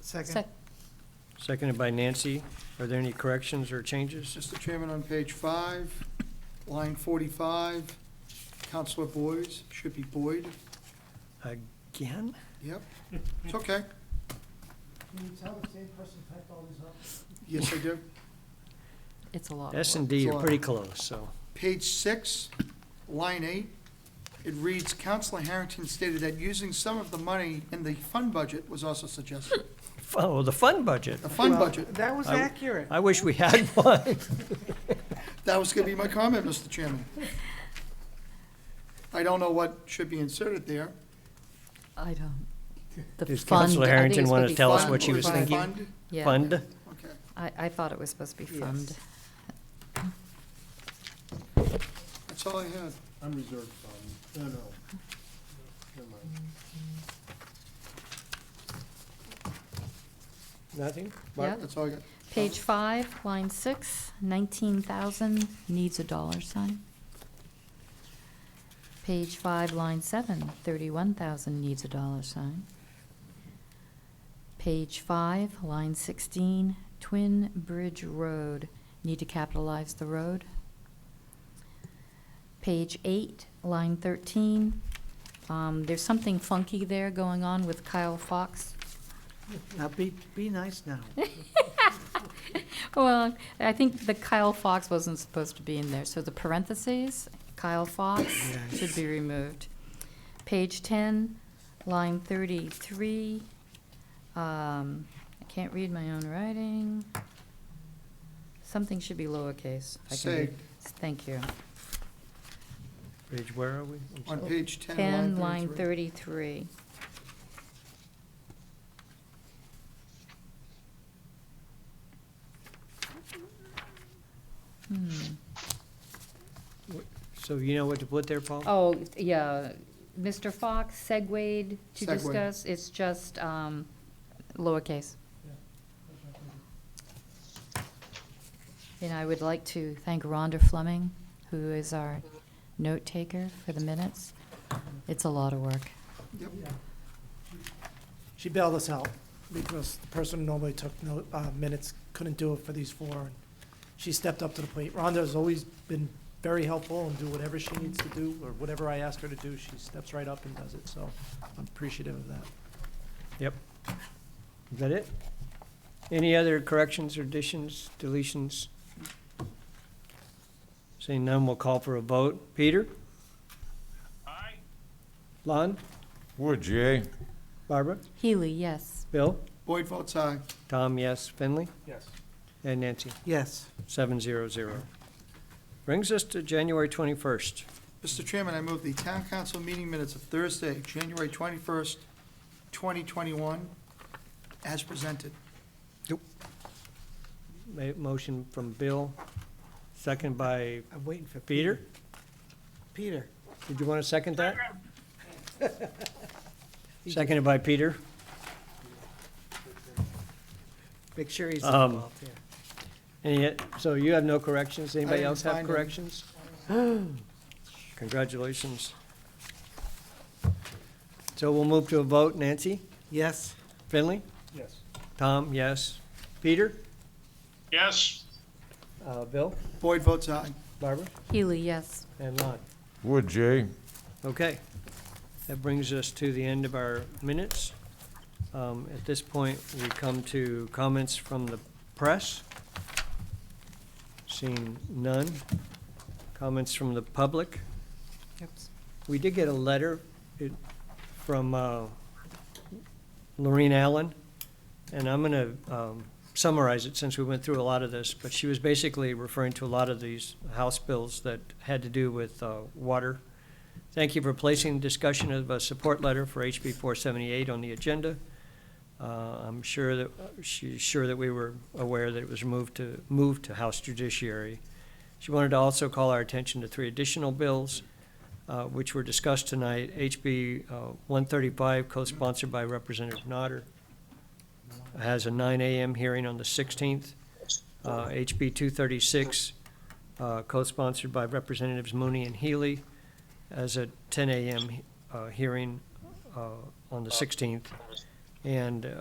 Second. Seconded by Nancy. Are there any corrections or changes? Mr. Chairman, on page five, line forty-five, Counselor Boys, should be Boyd. Again? Yep, it's okay. Can you tell the same person typed all these up? Yes, I do. It's a lot of S work. and D are pretty close, so. Page six, line eight, it reads, Counselor Harrington stated that using some of the money in the fund budget was also suggested. Oh, the fund budget. The fund Well, budget, That was I- accurate. I wish we had one. that was gonna be my comment, Mr. Chairman. I don't know what should be inserted there. I don't. The Does fund, Counselor I think Harrington it's wanna supposed be tell us fund. what she was Fund, thinking? fund, Yeah. Fund. Okay. I, I thought it was supposed to be fund. Yes. That's all I had. Unreserved fund, no, no. Never mind. Nothing? But Yep. That's all I got. Page five, line six, nineteen thousand needs a dollar sign. Page five, line seven, thirty-one thousand needs a dollar sign. Page five, line sixteen, Twin Bridge Road, need to capitalize the road. Page eight, line thirteen, um, there's something funky there going on with Kyle Fox. Now, be, be nice now. Well, I think the Kyle Fox wasn't supposed to be in there, so the parentheses, Kyle Fox, should be removed. Page ten, line thirty-three, um, I can't read my own writing. Something should be lowercase. if I can Say, read. Thank you. Page, where are we? I'm on sorry. page ten, Ten, line line thirty-three. thirty-three. Hmm. So you know what to put there, Paul? Oh, yeah, Mr. Fox segued to Segue. discuss, it's just um, lowercase. And I would like to thank Rhonda Fleming, who is our note taker for the minutes. It's a lot of work. She bailed us out because the person who normally took no, uh, minutes couldn't do it for these four. and She stepped up to the plate. Rhonda has always been very helpful and do whatever she needs to do or whatever I ask her to do, she steps right up and does it. So I'm appreciative of that. Is that it? Any other corrections, additions, deletions? Seeing none, we'll call for a vote. Peter? Aye. Lon? Would you? Barbara? Healy, yes. Bill? Boyd votes aye. Tom, yes. Finley? Yes. And Nancy? Yes, Seven zero zero. Brings us to January twenty-first. Mr. Chairman, I move the town council meeting minutes of Thursday, January twenty-first, twenty twenty-one, as presented. Motion from Bill, second by I'm waiting for. Peter. Peter. Did you want to second that? Seconded by Peter. Make sure he's Um, involved here. And yet, so you have no corrections? Anybody didn't else have find any. corrections? Congratulations. So we'll move to a vote. Nancy? Yes, Finley? Yes. Tom, yes. Peter? Yes. Uh, Bill? Boyd votes aye. Barbara? Healy, yes. And Lon? Would you? Okay, that brings us to the end of our minutes. Um, At this point, we come to comments from the press. Seeing none. Comments from the public. Oops. We did get a letter it- from uh, Lorraine Allen, and I'm going to summarize it since we went through a lot of this, but she was basically referring to a lot of these House bills that had to do with uh, water. Thank you for placing discussion of a support letter for HB 478 on the agenda. Uh, I'm sure that, she's sure that we were aware that it was moved to, moved to House Judiciary. She wanted to also call our attention to three additional bills uh, which were discussed tonight, HB uh, 135, co-sponsored by Representative Nodder, has a 9 AM hearing on the 16th. Uh, HB 236, uh, co-sponsored by Representatives Mooney and Healy, has a 10 AM he- uh, hearing uh, on the 16th. And uh,